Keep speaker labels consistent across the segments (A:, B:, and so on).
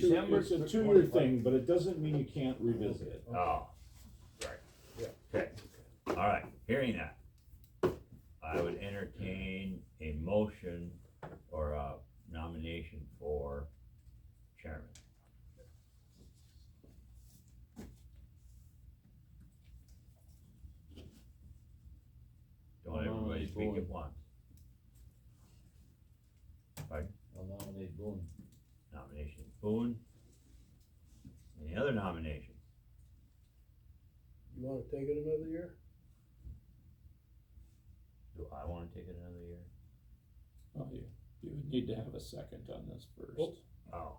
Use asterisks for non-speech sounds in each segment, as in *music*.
A: December.
B: It's a two-year thing, but it doesn't mean you can't revisit it.
C: Oh, right.
A: Yeah.
C: Okay, all right, hearing that, I would entertain a motion or a nomination for chairman. Don't everybody speak at once,
A: I'll nominate Boone.
C: nomination of Boone. Any other nomination?
D: You wanna take it another year?
C: Do I wanna take it another year?
B: Oh, you, you would need to have a second on this first.
C: Oh,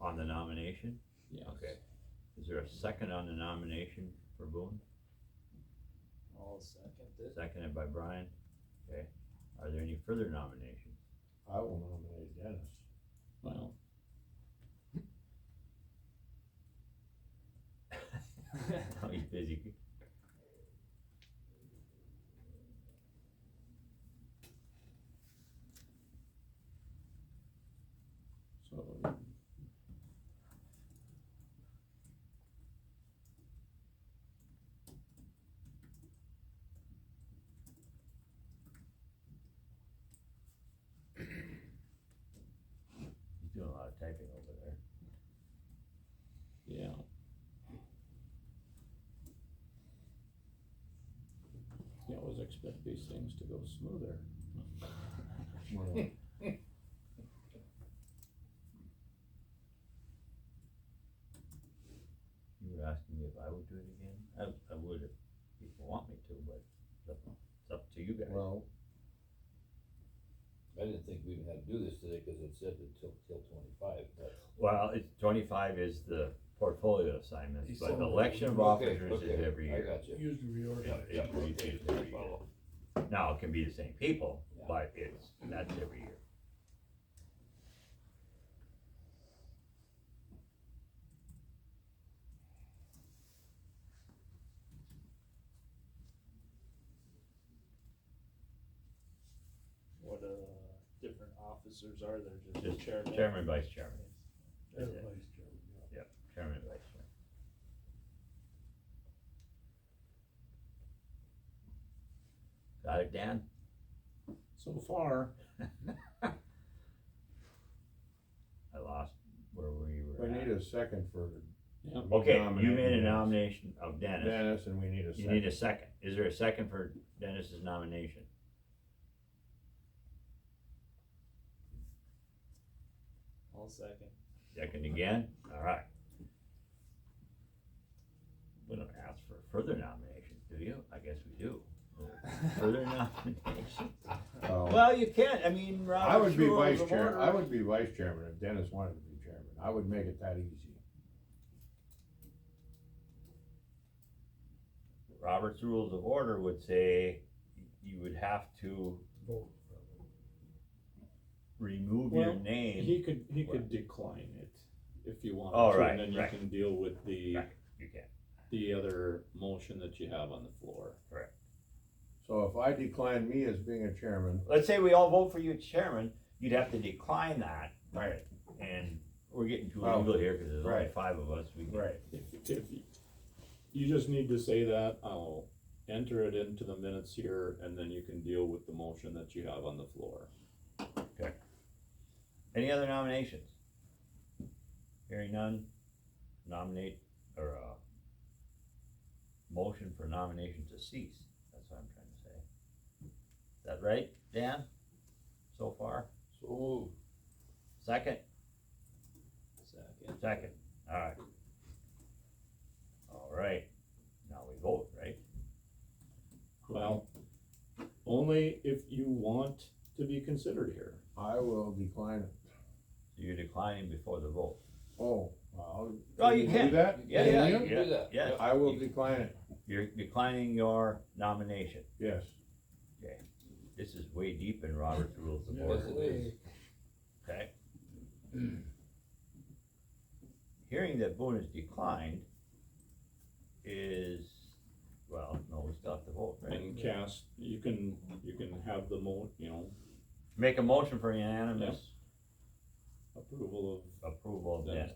C: on the nomination?
B: Yeah.
C: Okay. Is there a second on the nomination for Boone?
A: I'll second
C: Seconded by Brian. Okay. Are there any further nominations?
D: I will nominate Dennis.
B: Well,
A: it.
C: Oh, he's busy.
B: so.
C: He's doing a lot of typing over there.
B: Yeah. You always expect these things to go smoother.
C: You were asking me if I would do it again? I, I would if you want me to, but it's up- it's up to you guys.
A: Well. I didn't think we would have to do this today, cause it said until, till twenty-five, but.
C: Well, it's twenty-five is the portfolio assignments,
D: He's
C: but
D: on the-
C: election of
A: Okay,
C: officers is
A: okay,
C: every
A: I
C: year.
A: got you.
D: Usually we already.
C: Yeah, yeah, we do it every year. Now, it can be the same people,
A: Yeah.
C: but it's, that's every year.
E: what uh different officers are there, just
C: Just
E: the chairman?
C: Chairman, vice chairman. That's it.
D: Everybody's chairman, yeah.
C: Chairman and vice chairman. Got it, Dan?
B: So far,
C: I lost where we were
D: We
C: at.
D: need a second for.
B: yeah,
C: Okay, you
D: nominating
C: made a
D: Dennis.
C: nomination of Dennis.
D: Dennis, and we need a
C: You need
D: second.
C: a second. Is there a second for Dennis's nomination?
E: I'll second.
C: Second again? All right. We don't ask for further nominations, do you? I guess we *laughs* do. Further nominations?
D: Uh,
C: Well, you can't. I mean, Robert.
D: I would be
C: Rules
D: vice
C: of
D: chair,
C: Order.
D: I would be vice chairman if Dennis wanted to be chairman, I would make it that easy.
C: Robert's Rules of Order would say you would have to remove your
B: Well,
C: name.
B: he could, he could decline it if you
C: Oh,
B: wanted to,
C: right,
B: and then you
C: right.
B: can deal with the,
C: Right. You can't.
B: the other motion that you have on the floor.
D: So if I decline me as being a chairman,
C: Let's say we all vote for you chairman, you'd have to decline that. Right. And we're getting too
D: Well,
C: legal here because there's only
D: right.
C: five of us. We can-
B: If, if, you- you just need to say that, I'll enter it into the minutes here, and then you can deal with the motion that you have on the floor.
C: Any other nominations? Hearing none, nominate, or, uh, motion for nomination to cease, that's what I'm trying to say. Is that right, Dan, so far?
D: so
C: Second?
E: Second.
C: Second, alright. Alright, now we vote, right?
B: Well, only if you want to be considered here.
D: I will decline it.
C: So you're declining before the vote.
D: Oh, well.
C: Oh, you
D: do
C: can.
D: that?
C: Yeah,
D: Can
C: yeah,
D: you?
C: you can do that. Yeah.
D: I will decline it,
C: You're declining your nomination.
D: yes.
C: This is way deep in Robert's Rules of
D: Yes,
C: Order,
D: it is.
C: okay? *clears throat* Hearing that Boone is declined is, well, no, we still have to vote, right?
B: And cast, you can, you can have the mo, you know,
C: Make a motion for unanimous
B: approval of
C: approval of
B: Dennis
C: that.